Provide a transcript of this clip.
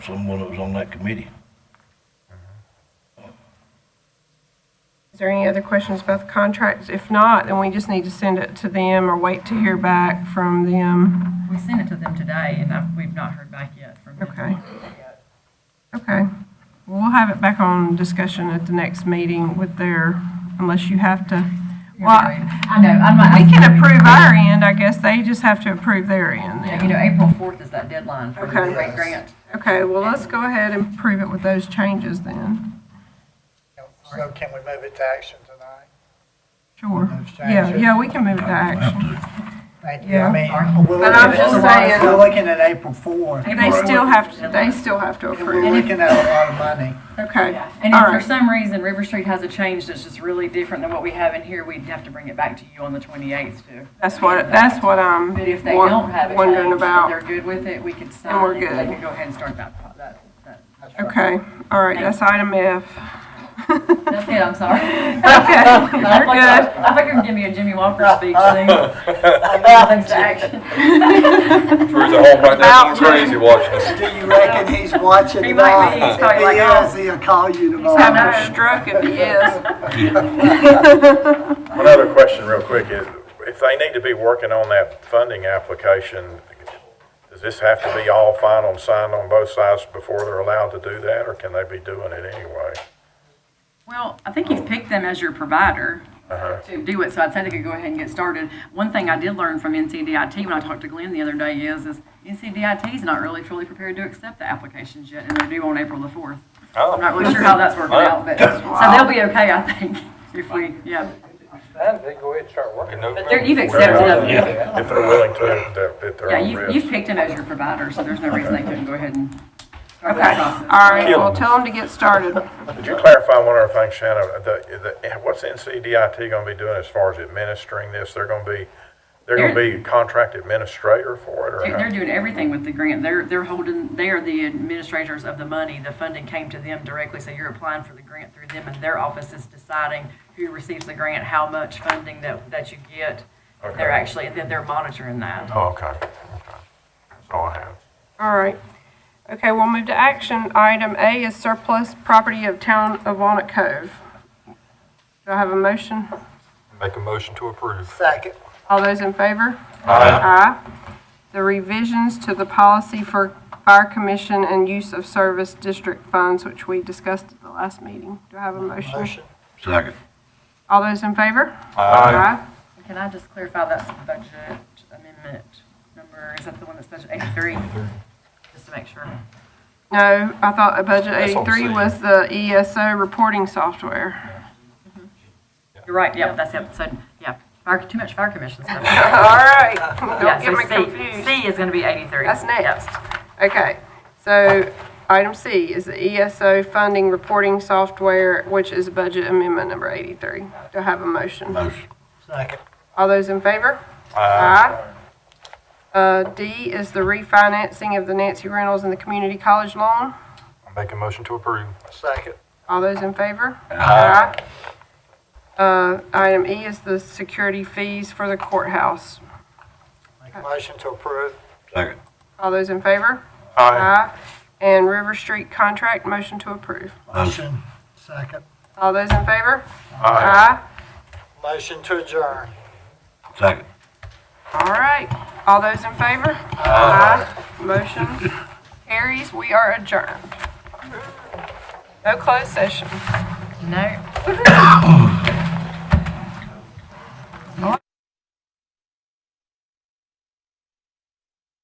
someone that was on that committee. Is there any other questions about the contracts? If not, then we just need to send it to them or wait to hear back from them. We sent it to them today, and I've, we've not heard back yet from them. Okay. Okay. We'll have it back on discussion at the next meeting with their, unless you have to. Well, I know, I'm not. we can approve our end, I guess. They just have to approve their end Yeah, You then. know, April 4th is that deadline for the Okay. great grant. Okay, well, let's go ahead and approve it with those changes then. So can we move it to action tonight? Sure. Those Yeah, changes. yeah, we can move it to I don't have action. to. Thank you. Yeah. I mean, we're But I'm looking at- just saying- We're looking at April 4th. They still have, to. they still have to And we're approve it. looking at a lot of money. Okay. And All if for right. some reason River Street has a change that's just really different than what we have in here, we'd have to bring it back to you on the 28th too. That's what, that's what I'm But if they won- don't have a wondering change, but about. they're good with it, we could sign. And we're They good. could go ahead and start that, pro- that, that. Okay, all right, that's item F. That's it, I'm sorry. Okay, I you're thought- good. I thought you were giving me a Jimmy Walker speech thing. Nothing's to action. Drew's at home right now going crazy watching us. Do you reckon he's watching He might tomorrow? be. He's probably like, oh. If he is, he'll call you He's having a tomorrow. stroke if he is. One other question real quick is, if they need to be working on that funding application, does this have to be all final and signed on both sides before they're allowed to do that, or can they be doing it anyway? Well, I think he's picked them as your provider to do it, so I'd say they could go ahead and get started. One thing I did learn from NCDIT when I talked to Glenn the other day is, is NCDIT is not really fully prepared to accept the applications yet, and they're due on April the 4th. Oh. I'm not really sure how that's working out, but, so they'll be okay, I think, if we, yeah. they go ahead and start working. But they're- you've accepted them. If they're willing to, that- at their Yeah, own you've, risk. you've picked him as your provider, so there's no reason they couldn't go ahead and start that process. All right, Kill well, him. tell him to get started. Could you clarify one other thing, Shannon? The, the, what's NCDIT gonna be doing as far as administering this? They're gonna be, they're gonna be contract administrator for it, or? They're how? they're doing everything with the grant. They're, they're holding, they are the administrators of the money. The funding came to them directly, so you're applying for the grant through them, and their office is deciding who receives the grant, how much funding that, that you get. They're Okay. actually, and then they're monitoring that. Oh, okay, okay. That's all I have. All right. Okay, we'll move to action. Item A is surplus property of town of Walnut Cove. Do I have a motion? Make a motion to approve. Second. All those in favor? Aye. The revisions to the policy for fire commission and use of service district funds, which we discussed at the last meeting. Do I have a motion? Motion. Second. All those in favor? Aye. Can I just clarify that's budget amendment number, is that the one that's budget eighty-three? Just to make sure. No, I thought a budget That's what I'm 83 was the ESO reporting software. You're right, yep, that's it. So, yeah, fire, too much fire commission stuff. All right, Yeah, don't so get me C- confused. C is gonna be eighty-three. That's next. Yes. Okay, so item C is the ESO funding reporting software, which is budget amendment number 83. Do I have a motion? Motion. Second. All those in favor? Aye. Uh, D is the refinancing of the Nancy Reynolds and the community college loan. Make a motion to approve. Second. All those in favor? Aye. Uh, item E is the security fees for the courthouse. Make a motion to approve. Second. All those in favor? Aye. And River Street contract, motion to approve. Motion. Second. All those in favor? Aye. Motion to adjourn. Second. All right. All those in favor? Aye. Motion carries. We are adjourned. No closed session. No.